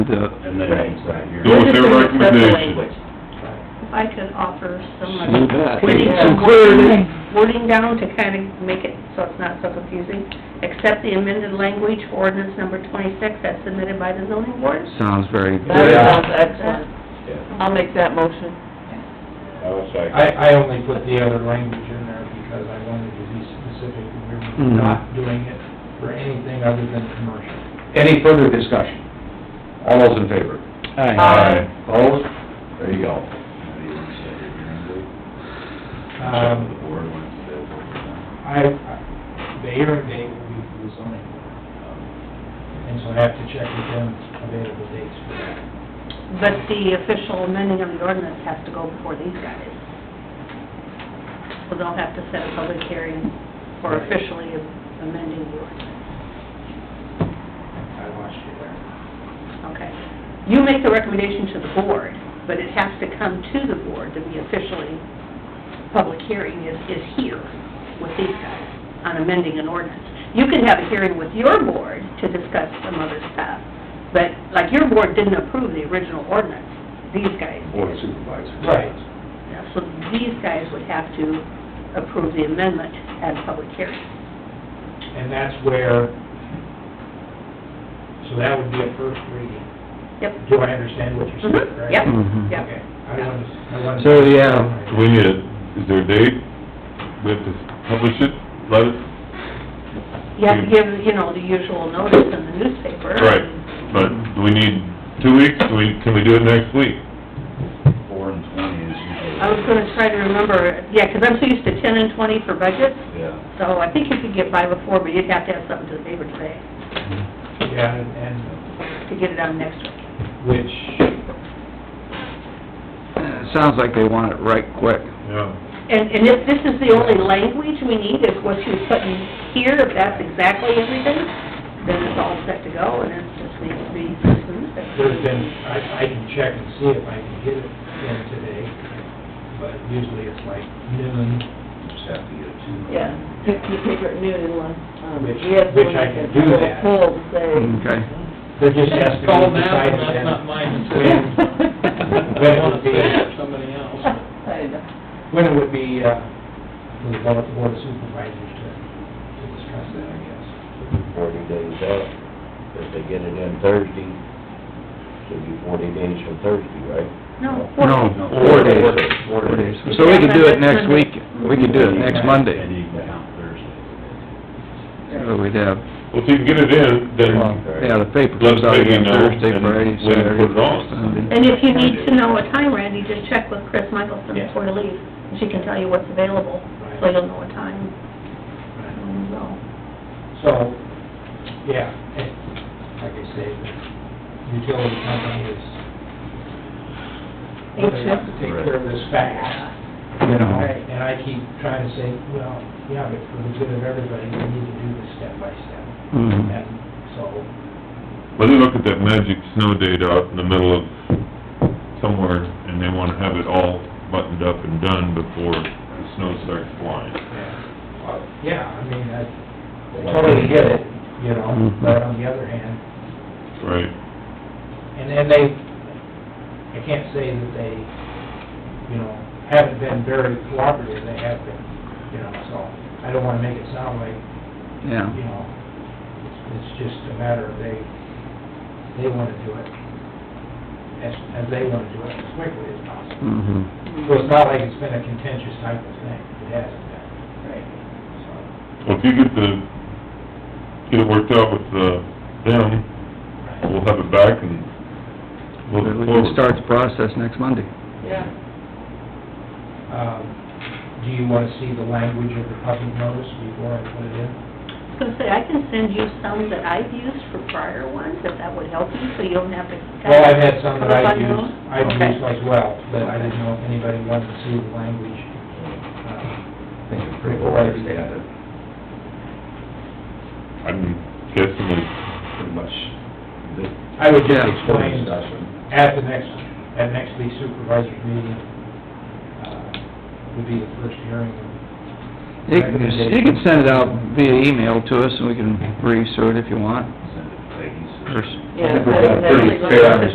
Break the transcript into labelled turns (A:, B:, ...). A: the,
B: and then it's not here.
C: Go with their
D: We're just gonna accept the
C: recommendation.
D: language. If I could offer some.
A: you bet,
D: wording
A: some
D: down-
A: clarity.
D: Wording down to kind of make it so it's not so confusing. Accept the amended language for ordinance number twenty-six as submitted by the zoning board.
A: Sounds very
E: That
A: good.
E: sounds excellent.
B: Yeah.
E: I'll make that motion.
B: I was like,
F: I, I only put the other language in there because I wanted to be specific, we
A: Mhm.
F: were not doing it for anything other than commercial.
G: Any further discussion? All those in favor?
A: Aye.
G: Opposed? There you go.
B: how do you want to set it, you know, check with
F: Um,
B: the board when it's available.
F: I, I- the hearing date will be for the zoning, um, and so I have to check with them available dates for that.
D: But the official amending of the ordinance has to go before these guys. So they'll have to set a public hearing for officially amending the ordinance.
F: I lost you there.
D: Okay. You make the recommendation to the board, but it has to come to the board to be officially, public hearing is, is here with these guys on amending an ordinance. You could have a hearing with your board to discuss some other stuff, but like your board didn't approve the original ordinance, these guys did.
G: Board of Supervisors.
F: Right.
D: Yeah, So these guys would have to approve the amendment at a public hearing.
F: And that's where, so that would be a first reading.
D: Yep.
F: Do I understand what you're saying,
D: Mhm,
F: right?
D: yep.
A: Mhm.
D: Yep.
F: Okay, I wanted, I wanted.
A: So, yeah.
C: Do we need a, is there a date? We have to publish it, let it,
D: You have to give, you know, the usual notice in the newspaper.
C: right, but do we need two weeks? Do we, can we do it next week?
B: Four and twenty is usually.
D: I was gonna try to remember, yeah, 'cause I'm so used to ten and twenty for budgets,
B: Yeah.
D: so I think you could get by before, but you'd have to have something to the paper today
F: Yeah, and- and
D: to get it on next week.
F: which,
A: It Sounds like they want it right quick.
C: Yeah.
D: And, and if this is the only language we need, is what you put in here, if that's exactly everything, then it's all set to go, and it just needs to be sent to the newspaper.
F: there's been, I, I can check and see if I can get it in today, but usually it's like noon,
B: Just have to get it to.
E: Yeah, you you pick her at noon unless, um,
F: Which-
E: we have
F: which
E: someone
F: I
E: that
F: can
E: can
F: do
E: pull to
F: that.
E: say.
A: Okay.
F: they're just asking.
H: Call now, that's not my decision.
F: When
H: I
F: it
H: wanna
F: would be,
H: say it for somebody else.
E: I know.
F: when it would be, uh, for the board of supervisors to, to discuss that, I guess.
I: forty days out. If they get it in Thursday, should be forty days from Thursday, right?
D: No,
A: No, four days, four days. So we could do it next week, we could do it next
B: And
A: Monday.
B: you can count Thursday.
A: So we'd have,
C: Well, if you can get it in,
A: well,
C: then
A: yeah, the paper
C: let
A: comes out
C: Peggy
A: again
C: know,
A: Thursday,
C: and
A: Friday,
C: we can
A: Saturday,
C: put it on.
A: Sunday.
D: And if you need to know a time, Randy, just check with Chris Michelson
F: Yeah.
D: before you leave. She can tell you what's available, so
F: Right.
D: you'll know a time. when you go.
F: So, yeah, and like I say, the utility company is, they have to take care of this fast. You know,
A: Right.
F: and I keep trying to say, well, yeah, but for the good of everybody, we need to do this step by step.
A: Mhm.
F: And so,
C: Well, they look at that magic snow date out in the middle of somewhere, and they wanna have it all buttoned up and done before the snow starts flying.
F: yeah, Uh, yeah, I mean, I I totally get it, you know,
A: Mhm.
F: but on the other hand,
C: Right.
F: And, and they, I can't say that they, you know, haven't been very cooperative, they have been, you know, so I don't wanna make it sound like,
A: Yeah.
F: you know, it's, it's just a matter of they, they wanna do it as, as they wanna do it as quickly as possible.
A: Mhm.
F: So it's not like it's been a contentious type of thing, it hasn't been,
E: Right.
F: so.
C: Well, if you get the, get it worked out with, uh, them, we'll have it back and look
A: But we
C: forward.
A: can start the process next Monday.
E: Yeah.
F: Um, do you wanna see the language of the public notice before I put it in?
D: I was gonna say, I can send you some that I've used for prior ones, if that would help you, so you don't have to...
F: Well, I've had some that I've
D: Up on your
F: used,
D: own?
F: I've
D: Okay.
F: used as well, but I didn't know if anybody wanted to see the language. uh,
G: I think it's pretty well understanded,
C: I'm guessing it's
G: pretty much. the-
F: I would just
A: Yeah.
F: explain
G: Discussion.
F: at the next, at next week's supervisor's meeting, uh, would be the first hearing.
A: You can, you can send it out via email to us, and we can reissue it if you want,
B: Send it to Peggy. so-
A: or s- Yeah,
D: I think we're
A: that's
D: pretty
A: exactly-
D: fair on this